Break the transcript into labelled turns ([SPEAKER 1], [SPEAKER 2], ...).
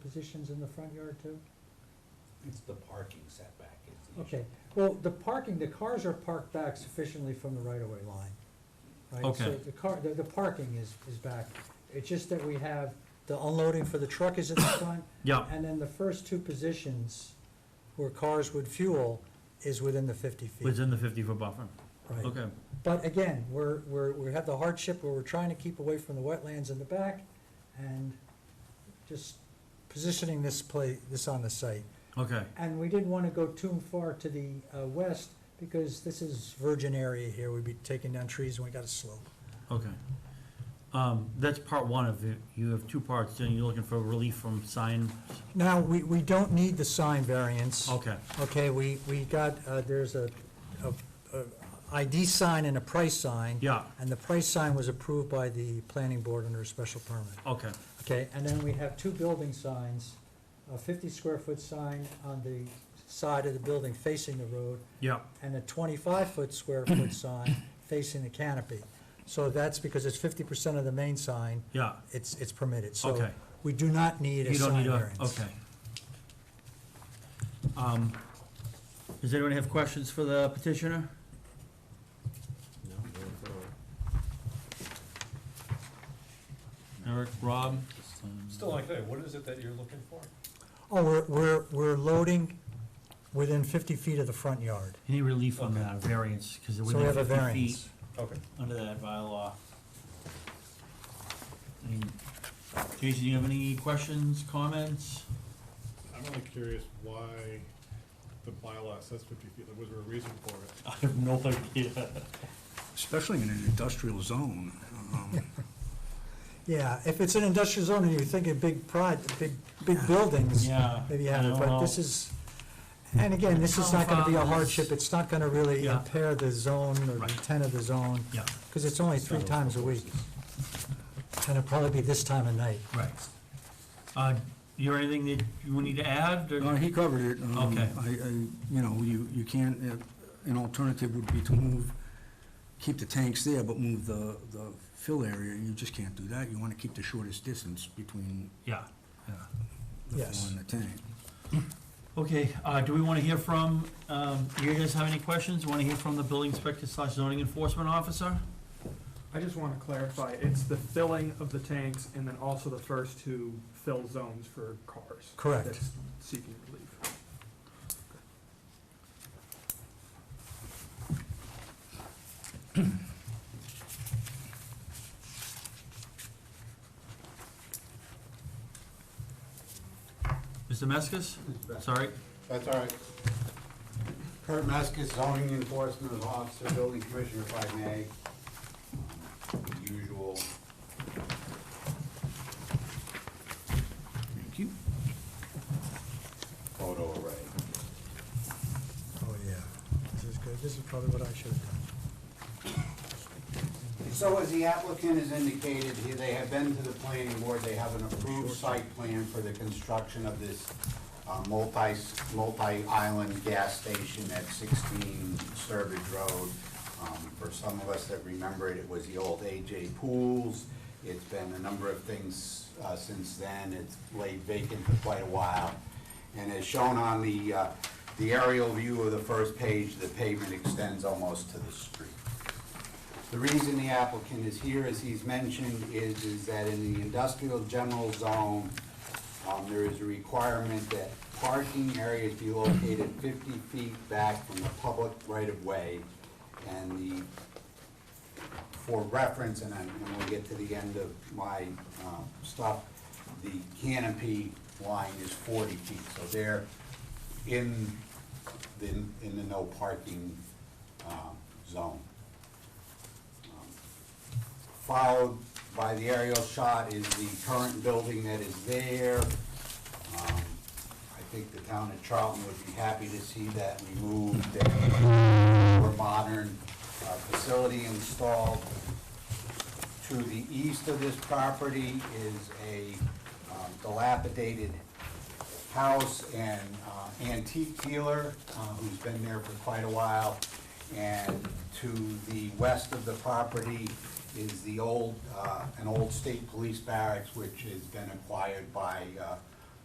[SPEAKER 1] positions in the front yard too?
[SPEAKER 2] It's the parking setback is the issue.
[SPEAKER 1] Okay, well, the parking, the cars are parked back sufficiently from the right-of-way line, right? So
[SPEAKER 3] Okay.
[SPEAKER 1] the car, the, the parking is, is back. It's just that we have, the unloading for the truck is at the front.
[SPEAKER 3] Yeah.
[SPEAKER 1] And then the first two positions where cars would fuel is within the fifty feet.
[SPEAKER 3] within the fifty-foot buffer.
[SPEAKER 1] Right.
[SPEAKER 3] Okay,
[SPEAKER 1] But again, we're, we're, we have the hardship where we're trying to keep away from the wetlands in the back and just positioning this play, this on the site.
[SPEAKER 3] okay,
[SPEAKER 1] And we didn't want to go too far to the uh, west because this is virgin area here. We'd be taking down trees and we got a slope.
[SPEAKER 3] okay. Um, that's part one of it. You have two parts, then you're looking for relief from sign,
[SPEAKER 1] Now, we, we don't need the sign variance.
[SPEAKER 3] okay,
[SPEAKER 1] Okay, we, we got, uh, there's a, a, a ID sign and a price sign.
[SPEAKER 3] yeah,
[SPEAKER 1] And the price sign was approved by the planning board under a special permit.
[SPEAKER 3] okay,
[SPEAKER 1] Okay, and then we have two building signs, a fifty square foot sign on the side of the building facing the road,
[SPEAKER 3] yeah,
[SPEAKER 1] and a twenty-five foot square foot sign facing the canopy. So that's because it's fifty percent of the main sign,
[SPEAKER 3] yeah,
[SPEAKER 1] it's, it's permitted, so
[SPEAKER 3] okay.
[SPEAKER 1] we do not need a
[SPEAKER 3] You don't
[SPEAKER 1] sign
[SPEAKER 3] need a,
[SPEAKER 1] variance.
[SPEAKER 3] okay. Um, does anyone have questions for the petitioner?
[SPEAKER 2] No, going forward.
[SPEAKER 3] Eric, Rob?
[SPEAKER 4] Still like that, what is it that you're looking for?
[SPEAKER 1] Oh, we're, we're, we're loading within fifty feet of the front yard,
[SPEAKER 3] Any relief on
[SPEAKER 4] Okay.
[SPEAKER 3] that, variance, because it
[SPEAKER 1] so we
[SPEAKER 3] within
[SPEAKER 1] have a
[SPEAKER 3] fifty feet.
[SPEAKER 1] variance.
[SPEAKER 4] Okay.
[SPEAKER 3] under that bylaw. I mean, Jason, do you have any questions, comments?
[SPEAKER 5] I'm only curious why the bylaw says fifty feet, Like, was there a reason for it?
[SPEAKER 3] I have no idea.
[SPEAKER 6] especially in an industrial zone. um,
[SPEAKER 1] Yeah, if it's an industrial zone and you're thinking big prod, big, big buildings,
[SPEAKER 3] Yeah.
[SPEAKER 1] maybe
[SPEAKER 3] I
[SPEAKER 1] have it,
[SPEAKER 3] don't
[SPEAKER 1] but
[SPEAKER 3] know.
[SPEAKER 1] this is, and again, this is not gonna be a
[SPEAKER 3] Townhouses.
[SPEAKER 1] hardship, it's not gonna really
[SPEAKER 3] Yeah.
[SPEAKER 1] impair the zone or the
[SPEAKER 3] Right.
[SPEAKER 1] intent of the zone,
[SPEAKER 3] Yeah,
[SPEAKER 1] because it's only three times a week, and it'll probably be this time of night.
[SPEAKER 3] right. Uh, you have anything that you need to add,
[SPEAKER 6] No,
[SPEAKER 3] or,
[SPEAKER 6] he covered it. um,
[SPEAKER 3] Okay.
[SPEAKER 6] I, I, you know, you, you can't, uh, an alternative would be to move, keep the tanks there, but move the, the fill area. You just can't do that. You want to keep the shortest distance between
[SPEAKER 3] yeah, yeah.
[SPEAKER 6] the
[SPEAKER 1] Yes.
[SPEAKER 6] fill and the tank.
[SPEAKER 3] Okay, uh, do we wanna hear from, um, you guys have any questions, wanna hear from the building inspector slash zoning enforcement officer?
[SPEAKER 7] I just want to clarify, it's the filling of the tanks and then also the first two fill zones for cars.
[SPEAKER 1] Correct.
[SPEAKER 7] That's seeking relief.
[SPEAKER 3] Mr. Meskis, sorry,
[SPEAKER 2] That's all right. Kurt Meskis, zoning enforcement officer, building commissioner, if I may. Um, Usual.
[SPEAKER 6] Thank you.
[SPEAKER 2] Photo array.
[SPEAKER 1] Oh, yeah, this is good, this is probably what I should have done.
[SPEAKER 2] So as the applicant has indicated, he- they have been to the planning board, they have an approved site plan for the construction of this uh, multi, multi-island gas station at 16 Sturbridge Road. Um, For some of us that remember it, it was the old AJ Pools. It's been a number of things uh, since then. It's laid vacant for quite a while. And as shown on the, uh, the aerial view of the first page, the pavement extends almost to the street. The reason the applicant is here, as he's mentioned, is, is that in the industrial general zone, um, there is a requirement that parking areas be located fifty feet back from the public right-of-way. And the for reference, and I'm, and we'll get to the end of my, um, stuff, the canopy line is forty feet, so they're in, the in the no parking, um, zone. Followed by the aerial shot is the current building that is there. Um, I think the town of Charlton would be happy to see that removed and more modern uh, facility installed. To the east of this property is a um, dilapidated house and uh, antique dealer uh, who's been there for quite a while. And to the west of the property is the old, uh, an old state police barracks, which has been acquired by uh,